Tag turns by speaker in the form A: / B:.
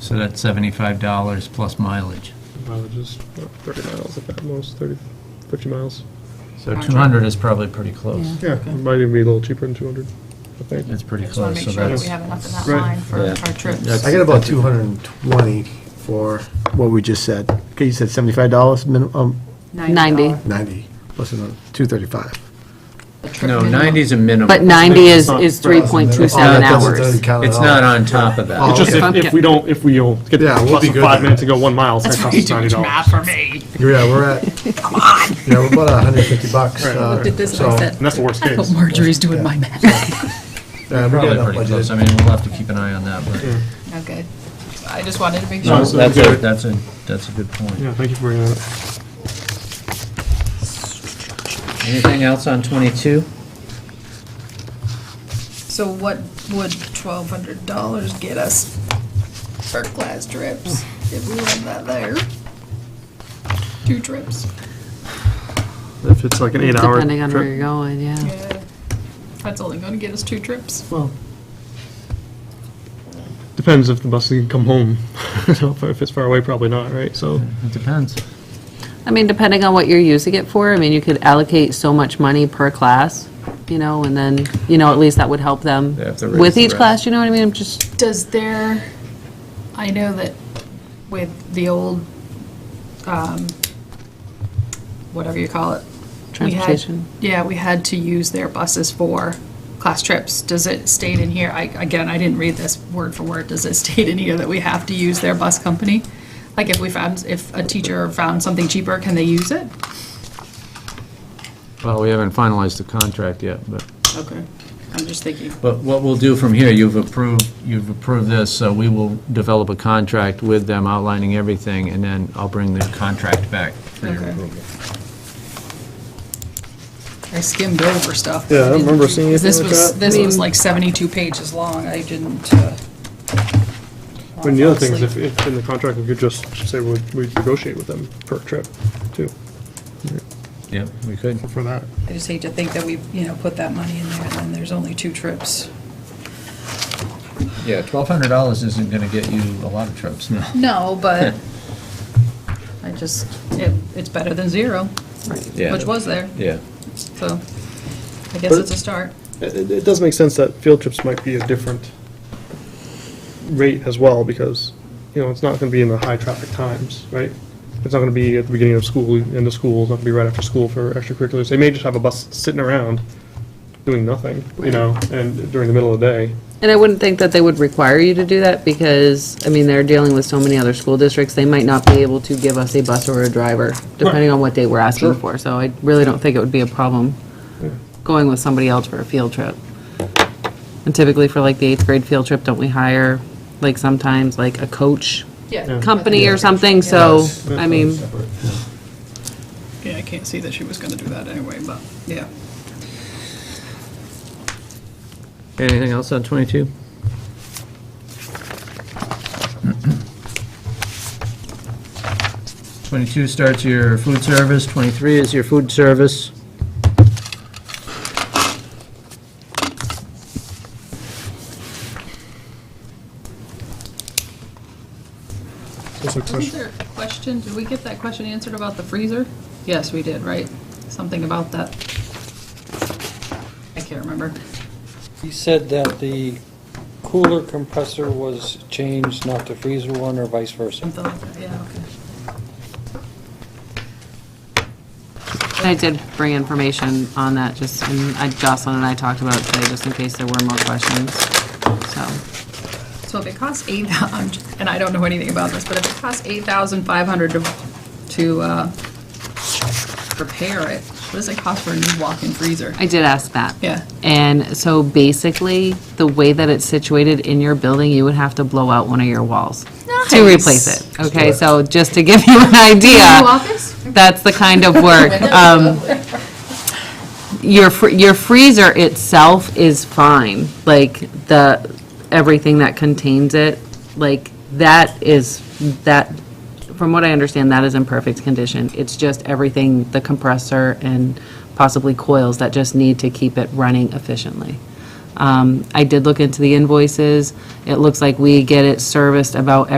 A: So that's seventy-five dollars plus mileage.
B: mileages, uh, 30 miles at that most, 30, 50 miles.
A: So two hundred is probably pretty close.
B: Yeah, it might even be a little cheaper than 200, I think.
A: It's pretty
C: Just
D: Oh,
C: want
A: close,
C: to
A: so
C: make sure that
A: that's,
C: we have enough in that
B: Right.
C: line for
D: Yeah.
C: our trips.
A: That's-
E: I got about 220 for what we just said. Okay, you said $75 minimum,
F: 90.
E: 90, plus another 235.
C: The trip
D: No,
C: minimum.
D: 90's a minimum.
F: But 90 is, is 3.27
E: Oh, that doesn't
F: hours.
E: count at
D: It's
E: all.
D: not on top of that.
E: Oh.
B: It's just
F: okay.
B: if, if we don't, if we don't get
E: Yeah,
B: the
E: we'll
B: plus
E: be
B: of
E: good
B: five
E: then.
B: minutes and go one mile, it's gonna cost us $90.
C: for me.
E: Yeah, we're at, yeah, we're about 150 bucks.
B: Right.
E: uh,
C: Looked at this
E: so,
C: and I said,
B: And that's the worst
C: I hope
B: case.
C: Marjorie's doing my math.
E: yeah, we got
A: probably
E: enough
A: pretty
E: budget.
A: close. I mean, we'll have to keep an eye on that, but
C: Okay. I just wanted to make
B: No,
C: sure.
B: so
A: that's
B: we
A: a,
B: got it.
A: that's a, that's a good point.
B: Yeah, thank you for bringing that up.
D: Anything else on 22?
C: So what would twelve hundred dollars get us for class trips if we went that there? Two trips?
B: If it's like an eight-hour
F: Depending on where
B: trip.
F: you're going, yeah.
C: Yeah. That's only gonna get us two trips.
B: Well, depends if the bus can come home. You know, If it's far away, probably not, right? So,
A: It depends.
F: I mean, depending on what you're using it for, I mean, you could allocate so much money per class, you know, and then, you know, at least that would help them
D: They have to raise
F: with
D: the
F: each
D: rest.
F: class, you know what I mean? I'm just,
C: Does there, I know that with the old, um, whatever you call it. we had-
F: Transportation.
C: Yeah, we had to use their buses for class trips. Does it state in here, I, again, I didn't read this word for word, does it state in here that we have to use their bus company? Like if we found, if a teacher found something cheaper, can they use it?
D: Well, we haven't finalized the contract yet, but.
C: Okay, I'm just thinking.
D: But what we'll do from here, you've approved, you've approved this, so we will develop a contract with them outlining everything, and then I'll bring the contract back for your
C: Okay.
D: approval.
C: I skimmed over stuff.
B: Yeah, I don't remember seeing
C: Because This
B: anything
C: was,
B: like that.
C: this was like 72 pages long, I didn't. uh,
B: and the other thing is
C: fall
B: if,
C: asleep.
B: if in the contract, we could just say we would negotiate with them per trip, too,
D: Yep, we could.
B: for that.
C: I just hate to think that we, you know, put that money in there and then there's only two trips.
D: Yeah, $1,200 isn't going to get you a lot of trips, no.
C: No, but I just, it, it's better than zero, which was there,
D: Yeah.
C: so I guess it's a start.
B: It, it- it does make sense that field trips might be a different rate as well, because, you know, it's not gonna be in the high traffic times, right? It's not gonna be at the beginning of school, end of school, it's not gonna be right after school for extracurriculars. They may just have a bus sitting around doing nothing, you know, and during the middle of the day.
F: and I wouldn't think that they would require you to do that because, I mean, they're dealing with so many other school districts, they might not be able to give us a bus or a driver, depending on what day we're asking for. So I really don't think it would be a problem going with somebody else for a field trip. And typically for like the eighth grade field trip, don't we hire, like sometimes, like a coach
C: Yeah.
F: company or something? So, I mean,
C: Yeah, I can't see that she was gonna do that anyway, but, yeah.
D: Anything else on 22? Twenty-two starts your food service, twenty-three is your food service.
B: That's a
C: Wasn't
B: question.
C: there a question, did we get that question answered about the freezer? Yes, we did, right? Something about that. I can't remember.
G: He said that the cooler compressor was changed, not the freezer one, or vice versa.
C: Something like that, yeah, okay.
F: And I did bring information on that, just, and I- Jocelyn and I talked about it today, just in case there were more questions, so.
C: So if it costs eight, I'm j- and I don't know anything about this, but if it costs eight thousand five hundred to, to, uh, repair it, what does it cost for a new walk-in freezer?
F: I did ask that.
C: Yeah.
F: And so basically, the way that it's situated in your building, you would have to blow out one of your walls to
C: Nice.
F: replace it, okay? So just to give you an idea.
C: New office?
F: That's the kind of work. Um, Your, fr- your freezer itself is fine, like the, everything that contains it, like that is, that, from what I understand, that is in perfect condition. It's just everything, the compressor and possibly coils that just need to keep it running efficiently. Um, I did look into the invoices. It looks like we get it serviced about